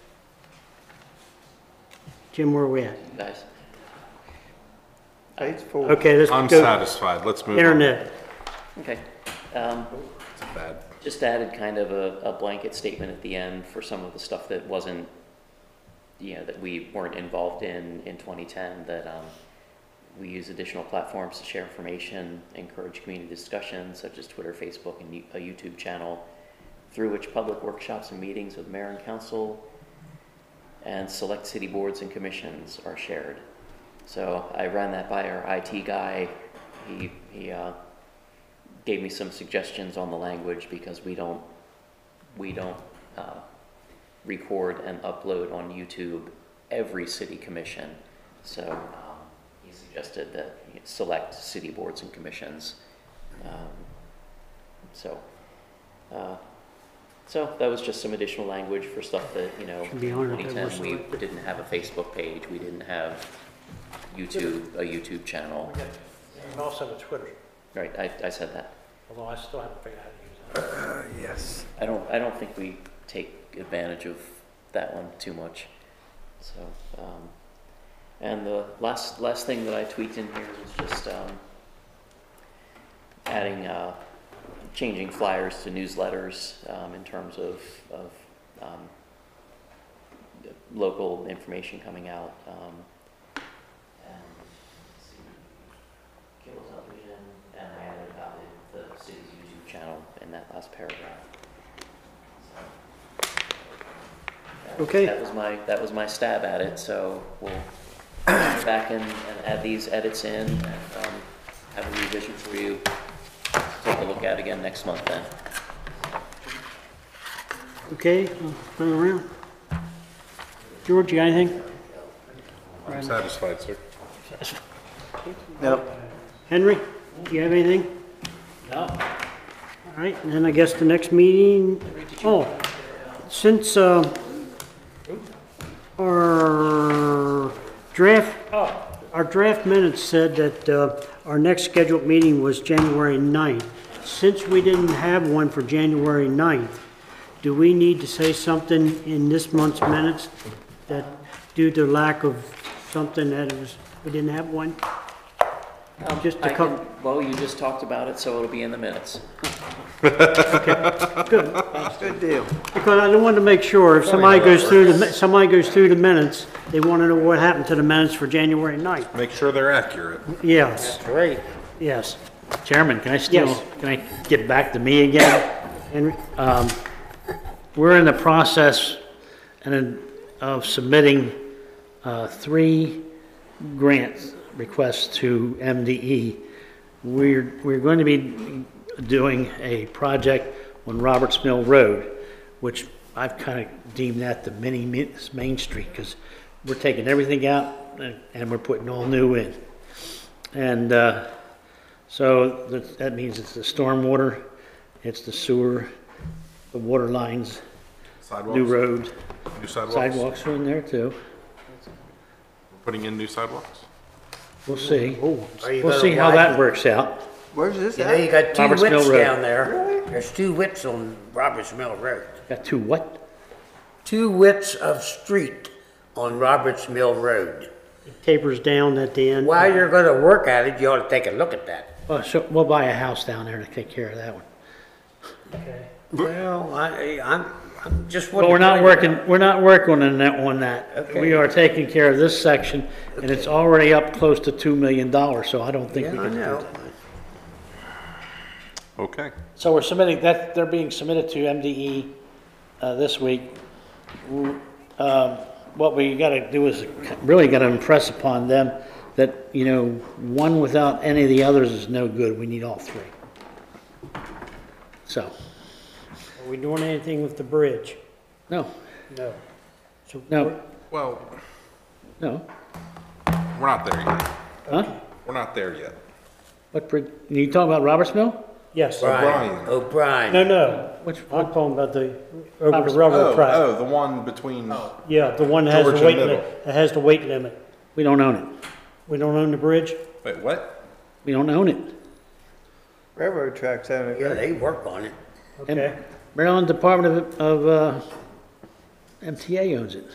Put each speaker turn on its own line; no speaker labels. Jim, where are we at?
Nice.
Page four.
Okay, let's
I'm
go
satisfied. Let's move on.
internet.
Okay. Um,
It's bad.
Just added kind of a, a blanket statement at the end for some of the stuff that wasn't, you know, that we weren't involved in, in 2010, that um, we use additional platforms to share information, encourage community discussions such as Twitter, Facebook, and you- a YouTube channel, through which public workshops and meetings with mayor and council and select city boards and commissions are shared. So I ran that by our IT guy. He, he uh, gave me some suggestions on the language because we don't, we don't uh, record and upload on YouTube every city commission. So um, he suggested that you select city boards and commissions. Um, So, uh, so that was just some additional language for stuff that, you know,
Should be on it, that
2010,
was
we
selected.
didn't have a Facebook page, we didn't have YouTube, a YouTube channel.
We got- We also have a Twitter,
Right, I, I said that.
although I still haven't figured out how to
Uh,
use
Yes.
I don't, I don't think we take advantage of that one too much. So, um, and the last, last thing that I tweaked in here was just, um, adding, uh, changing flyers to newsletters, um, in terms of, of, um, local information coming out, um, and, let's see, cable television, and I added about the the city's YouTube channel in that last paragraph.
Okay.
That was my, that was my stab at it, so we'll go back and, and add these edits in, and, um, have a revision for you to take a look at again next month then.
Okay, I'll turn around. George, you got anything?
I'm satisfied, sir.
that. No.
Henry, do you have anything? No. All right, and then I guess the next meeting, oh, since, uh, our draft, our draft minutes said that, uh, our next scheduled meeting was January 9th. Since we didn't have one for January 9th, do we need to say something in this month's minutes that due to lack of something that it was, we didn't have one? Just a
Um, I
couple-
can- Well, you just talked about it, so it'll be in the minutes.
Good deal.
Because I want to make sure, if somebody
how that
goes through, the somebody goes through the minutes, they want to know what happened to the minutes for January 9th.
Make sure they're accurate.
Yes,
Great.
yes.
Chairman, can I still,
Yes.
can I get back to me again?
Henry,
Um, We're in the process and in- of submitting uh, three grant requests to MDE. We're, we're going to be doing a project on Roberts Mill Road, which I've kind of deemed that the mini Mi- Main Street, because we're taking everything out and- and we're putting all new in. And uh, so that, that means it's the stormwater, it's the sewer, the water lines,
Sidewalks.
new road,
New sidewalks.
sidewalks are in there too.
Putting in new sidewalks.
We'll see.
Are
We'll
you gonna
see how
widen-
that works out.
Where's this
You know, you got two
Roberts Mill
whips
Road.
down there. There's two whips on Roberts Mill Road.
Got two what?
Two whips of street on Roberts Mill Road.
tapers down at the end.
While you're gonna work at it, you ought to take a look at that.
Oh, so we'll buy a house down there to take care of that one.
Well, I, I'm, I'm just.
But we're not working, we're not working on that, on that. We
Okay.
are taking care of this section and it's already up close to two million dollars, so I don't think
Yeah,
we
I
can.
know.
Okay.
So we're submitting, that, they're being submitted to MDE uh, this week. W- um, What we gotta do is really gotta impress upon them that, you know, one without any of the others is no good. We need all three. So,
Are we doing anything with the bridge?
no,
No. So,
no,
Well,
no.
we're not there yet.
Huh?
We're not there yet.
What, bridge? you talking about Roberts Mill?
yes.
O'Brien.
O'Brien.
No, no,
Which,
I'm talking about the, over
Roberts-
the railroad
Oh,
track.
oh, the one between.
Yeah, the one that has the
George and
weight
Middle.
limit, that has the weight limit.
we don't own it.
We don't own the bridge?
Wait, what?
We don't own it.
Railroad tracks on it.
Yeah, they work on it.
And
Okay.
Maryland Department of, of, uh, MTA owns it.